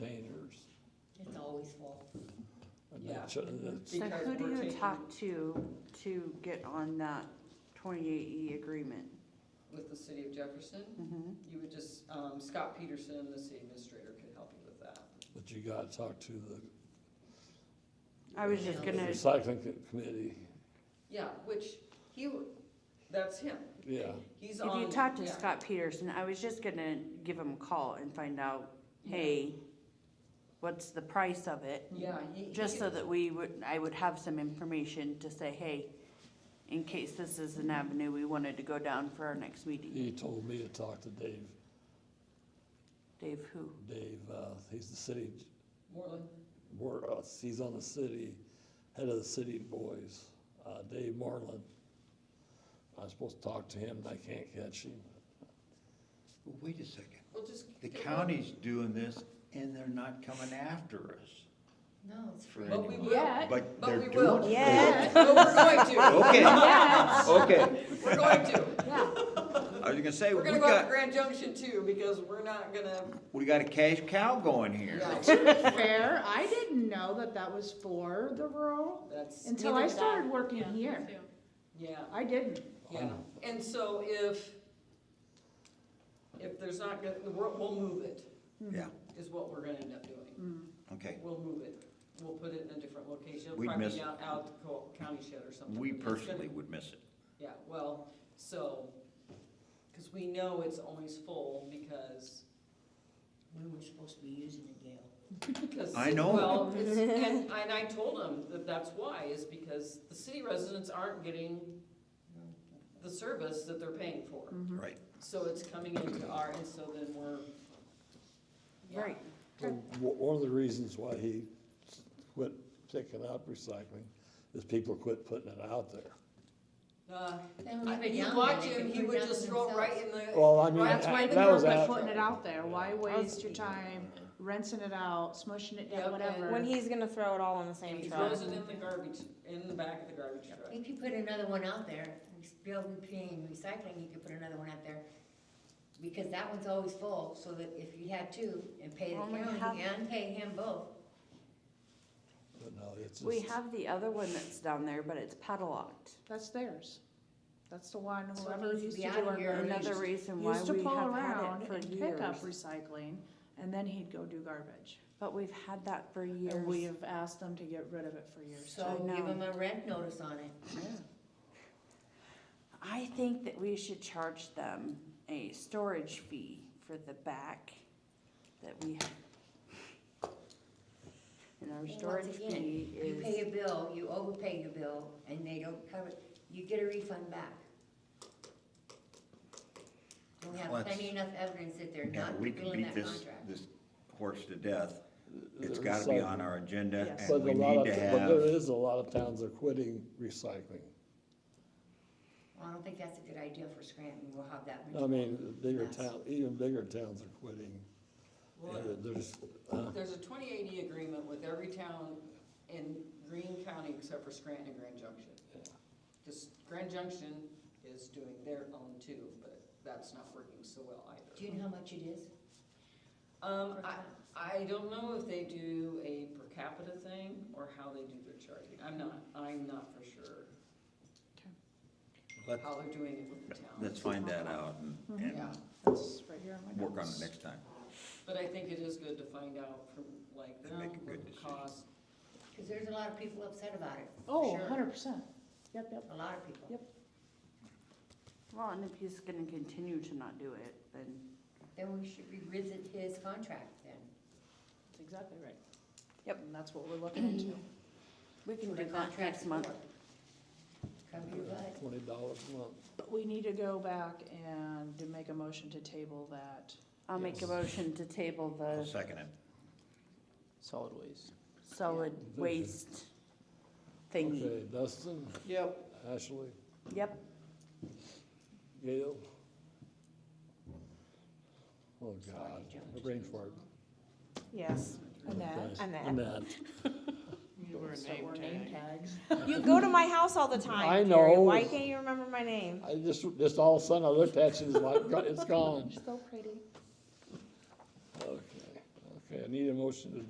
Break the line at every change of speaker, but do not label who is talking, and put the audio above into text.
containers.
It's always full.
And
Yeah.
that's, and that's-
So
Because
who do
we're
you
taking-
talk to, to get on that twenty-eight E agreement?
With the city of Jefferson,
Mm-hmm.
Mhm.
you would just, um, Scott Peterson, the city administrator, could help you with that.
but you gotta talk to the
I was just
Yeah.
gonna,
recycling co- committee,
Yeah, which he, w- that's him.
yeah.
He's
if
on.
you talk to
yeah.
Scott Peterson, I was just gonna give him a call and find out,
Yeah.
hey, what's the price of it?
Yeah, he.
Just
he-
so that we would, I would have some information to say, hey, in case this is an avenue we wanted to go down for our next meeting.
He told me to talk to Dave,
Dave, who?
Dave, uh, he's the city,
Moreland,
board, uh, he's on the city, head of the city boys, uh, Dave Marlin. I was supposed to talk to him, and I can't catch him.
Well, wait a second,
well, just.
the
get-
county's doing this and they're not coming after us
No, it's
for
But we
anyone.
will.
Yet.
But
But we
they're
will.
doing it.
Yeah.
But we're going to,
Okay,
Yes,
okay,
we're going to.
yeah.
I was gonna say,
We're
we
gonna go out to
got,
Grand Junction too, because we're not gonna,
we got a cash cow going here.
yeah,
fair, I didn't know that that was for the rural
that's,
until
Neither
I
did I.
started working here.
yeah.
I didn't.
Yeah, and so if, if there's not, gonna- we'll, we'll move it,
Yeah,
is what we're gonna end up doing.
okay,
We'll move it, we'll put it in a different location, It'll
We'd
probably
miss-
be out, out the co- county shed or something.
we
It's gonna-
personally would miss it.
Yeah, well, so, cause we know it's always full because,
We were supposed to be using it, Gail.
because.
I know.
Well, it's, and, and I told him that that's why, is because the city residents aren't getting the service that they're paying for.
Mm-hmm.
Right,
So it's coming into our, and so then we're. yeah.
Right.
Well, w- One of the reasons why he s- quit picking up recycling is people quit putting it out there.
Uh,
Then we
I
put
mean, you
down
watch
there, they
him,
could
he
put
would
down
just throw it right in
Uh,
the.
Well, I mean,
right-
That's why
that
the
that was
government
after.
putting it out there, why waste your
Housekeeping.
time rinsing it out, smushing it
Yep,
down, whatever.
When he's gonna throw it all in the
He
same truck.
throws it in the garbage, in the back of the garbage truck.
If you put another one out there, Bill, we paying recycling, you could put another one out there. Because that one's always full, so that if you had two and pay
Well, we
the
have-
county and pay him both.
But no, it's
We
just-
have the other one that's down there, but it's padlocked.
That's theirs. That's the one
So it
whoever
needs to
used
be
to
out
do
of
our
here.
garbage
Another reason why
Used to
we
pull
have had
around
it for
and pick up
years,
recycling, and then he'd go do garbage.
but we've had that for
And we
years.
have asked them to get rid of it for years.
So
I
give
know.
him a rent notice on it.
I think that we should charge them a storage fee for the back that we have. And our
Well,
storage
once again,
fee
You pay
is,
a bill, you overpay your bill, and they don't cover, it. you get a refund back. We
Well,
have
it's-
plenty enough evidence that they're
Yeah,
not
we can
fulfilling that
beat this,
contract.
this horse to death.
the
It's gotta be on
recycling.
our agenda
Yes.
But
and
a
we
lot
need
of,
to
but there
have,
is a lot of towns are quitting recycling.
Well, I don't think that's a good idea for Scranton, we'll have that.
I mean, bigger
Yes.
town, even bigger towns are quitting.
Well,
And There's, uh,
There's a twenty eighty agreement with every town in Greene County except for Scranton and Grand Junction. Cause Grand Junction is doing their own too, but that's not working so well
Do
either.
you know how much it is?
Um, I, I don't know if they do a per capita thing or how they do their charging. I'm not, I'm not for sure
let's,
how they're doing it with the towns.
let's find that out and, and
Yeah,
That's right here in my
work on it
notes.
next time.
but I think it is good to find out from like
And
them,
make a good
what the
decision.
cost,
Because there's a lot of people upset about it. for
Oh,
sure.
hundred percent. Yep, yep.
A lot of people.
Yep.
well, and if he's gonna continue to not do it, then
Then we should revisit his contract then.
That's exactly right.
Yep.
And that's what we're looking into.
we can
The
do that
contract's
next month.
for. Cover your butt.
twenty dollars a month.
But we need to go back and to make a motion to table that.
I'll make a
Yes.
motion to table
I'll
the
second it.
Solid waste.
solid
Yeah.
waste thingy.
Okay, Dustin,
Yep.
Ashley,
Yep,
Gail. Oh,
Sorry,
God,
John.
my brain fart.
Yes.
Okay,
Annette.
Annette.
Annette.
Start wearing name tags.
You go to my house all the
I
time, Carrie.
know.
Why can't you remember my name?
I just, just all of a sudden I looked at you, and it's like, it's gone.
So pretty.
Okay, okay, I need a motion to